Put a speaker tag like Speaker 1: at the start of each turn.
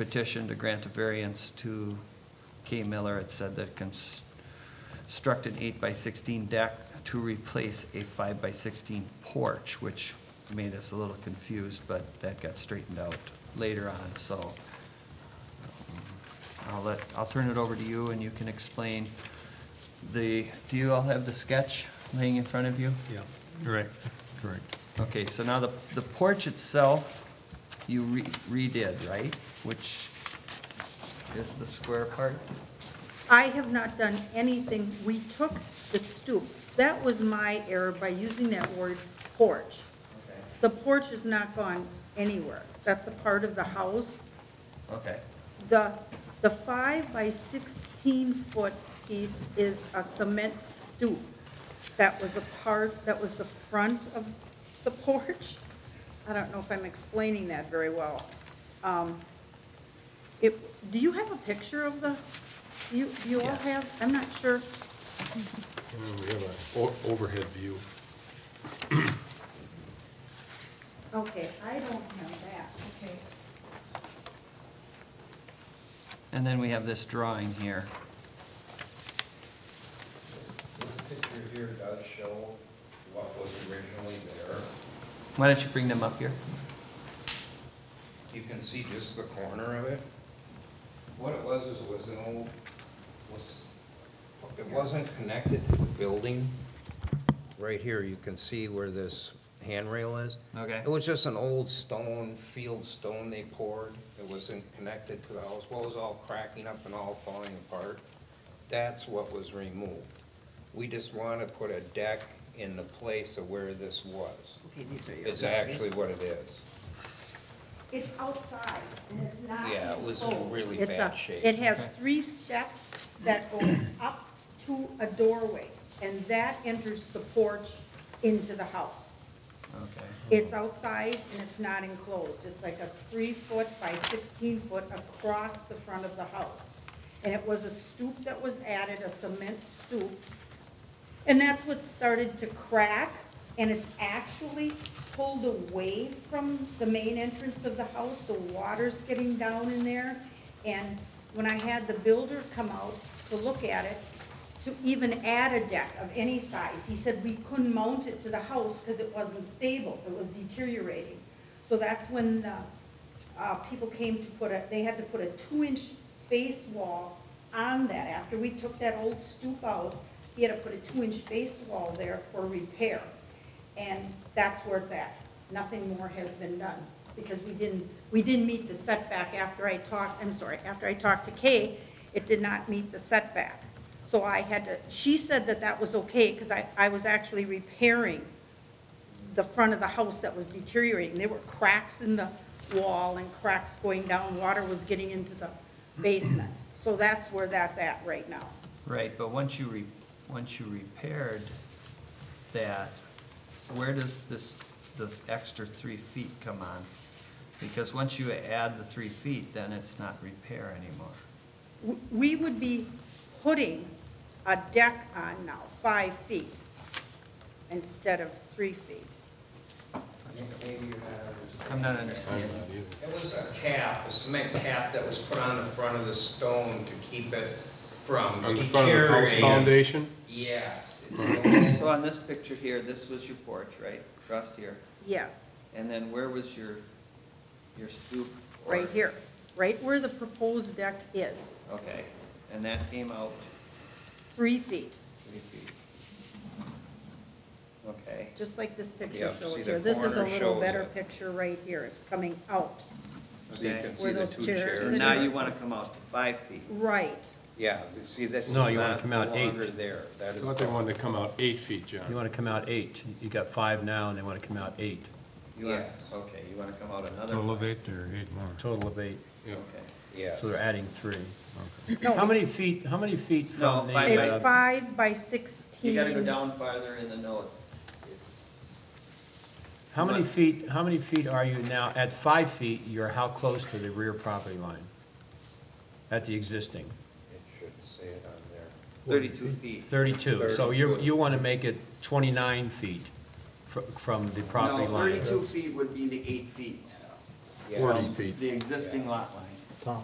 Speaker 1: petition to grant a variance to K. Miller. It said that construct an eight by sixteen deck to replace a five by sixteen porch, which made us a little confused, but that got straightened out later on, so. um, I'll let, I'll turn it over to you and you can explain the, do you all have the sketch laying in front of you?
Speaker 2: Yeah, right, correct.
Speaker 1: Okay, so now the, the porch itself, you re- redid, right? Which is the square part?
Speaker 3: I have not done anything. We took the stoop. That was my error by using that word porch. The porch is not gone anywhere. That's a part of the house.
Speaker 1: Okay,
Speaker 3: The, the five by sixteen foot piece is a cement stoop. That was a part, that was the front of the porch. I don't know if I'm explaining that very well. Um, It, do you have a picture of the, you, do you all
Speaker 1: Yes.
Speaker 3: have, I'm not sure.
Speaker 2: We have an overhead view.
Speaker 3: Okay, I don't have that. Okay.
Speaker 1: and then we have this drawing here.
Speaker 4: This this picture here does show what was originally there.
Speaker 1: Why don't you bring them up here?
Speaker 4: You can see just the corner of it. What it was is it was an old, was, it wasn't connected to the building. Right here, you can see where this handrail is.
Speaker 1: Okay.
Speaker 4: It was just an old stone, field stone they poured. It wasn't connected to the house. Well, it was all cracking up and all falling apart. That's what was removed. We just want to put a deck in the place of where this was.
Speaker 3: Okay, these are
Speaker 4: It's actually what it is.
Speaker 3: It's outside, and it's not.
Speaker 4: Yeah, it was in
Speaker 3: enclosed.
Speaker 4: really
Speaker 3: It's
Speaker 4: bad
Speaker 3: a-
Speaker 4: shape.
Speaker 3: It has three steps that go up to a doorway, and that enters the porch into the house.
Speaker 1: Okay.
Speaker 3: It's outside and it's not enclosed. It's like a three-foot by sixteen-foot across the front of the house. And it was a stoop that was added, a cement stoop. And that's what started to crack, and it's actually pulled away from the main entrance of the house, so water's getting down in there. And when I had the builder come out to look at it, to even add a deck of any size, he said we couldn't mount it to the house because it wasn't stable, it was deteriorating. So that's when the, uh, people came to put a, they had to put a two-inch face wall on that. After we took that old stoop out, he had to put a two-inch face wall there for repair. And that's where it's at. Nothing more has been done, because we didn't, we didn't meet the setback after I talked, I'm sorry, after I talked to Kay, it did not meet the setback. So I had to, she said that that was okay, because I, I was actually repairing the front of the house that was deteriorating. There were cracks in the wall and cracks going down, water was getting into the basement. So that's where that's at right now.
Speaker 1: Right, but once you re, once you repaired that, where does this, the extra three feet come on? Because once you add the three feet, then it's not repair anymore.
Speaker 3: W- We would be putting a deck on now, five feet, instead of three feet.
Speaker 4: Maybe you're not understanding.
Speaker 1: I'm not understanding.
Speaker 4: It was a cap, a cement cap that was put on the front of the stone to keep it from
Speaker 5: On the front of the house
Speaker 4: deteriorating.
Speaker 5: foundation?
Speaker 4: Yes. it's
Speaker 1: Okay,
Speaker 4: almost-
Speaker 1: So on this picture here, this was your porch, right, across here,
Speaker 3: Yes,
Speaker 1: and then where was your, your stoop? or-
Speaker 3: right here, right where the proposed deck is,
Speaker 1: Okay, and that came out
Speaker 3: three feet,
Speaker 1: three feet. Okay,
Speaker 3: just like this picture
Speaker 4: Yeah, see
Speaker 3: shows
Speaker 4: the
Speaker 3: here. This is a
Speaker 4: corner
Speaker 3: little
Speaker 4: shows
Speaker 3: better
Speaker 4: it.
Speaker 3: picture right here, it's coming out.
Speaker 4: So you
Speaker 1: Okay.
Speaker 4: can see
Speaker 3: Where
Speaker 4: the
Speaker 3: those
Speaker 4: two
Speaker 3: chairs
Speaker 1: so
Speaker 3: sit.
Speaker 1: now you wanna come out to five feet,
Speaker 3: Right,
Speaker 4: Yeah, you see, this is
Speaker 2: No, you wanna
Speaker 4: not
Speaker 2: come out eight.
Speaker 4: longer there. That
Speaker 5: I
Speaker 4: is
Speaker 5: thought they
Speaker 4: gone.
Speaker 5: wanted to come out eight feet,
Speaker 2: You
Speaker 5: John.
Speaker 2: want to come out eight, you got five now, and they want to come out eight,
Speaker 1: you wanna,
Speaker 4: Yes.
Speaker 1: okay, you wanna come out another?
Speaker 6: Total
Speaker 1: five.
Speaker 6: of eight or eight more?
Speaker 2: total of eight,
Speaker 5: Yeah.
Speaker 1: Okay,
Speaker 4: Yeah.
Speaker 2: so they're adding three.
Speaker 3: No.
Speaker 2: How many feet, how many feet
Speaker 1: No,
Speaker 2: from the?
Speaker 1: five
Speaker 2: uh,
Speaker 3: it's five by sixteen.
Speaker 1: you gotta go down farther in the notes, it's,
Speaker 2: How many feet, how many feet are you now, at five feet, you're how close to the rear property line? At the existing,
Speaker 4: It should say it on there.
Speaker 1: thirty-two feet.
Speaker 2: thirty-two, so you, you want to make it twenty-nine feet fr- from the property
Speaker 1: No,
Speaker 2: line.
Speaker 1: Thirty-two feet would be the eight feet,
Speaker 4: Yeah.
Speaker 5: Forty feet.
Speaker 1: the existing lot line.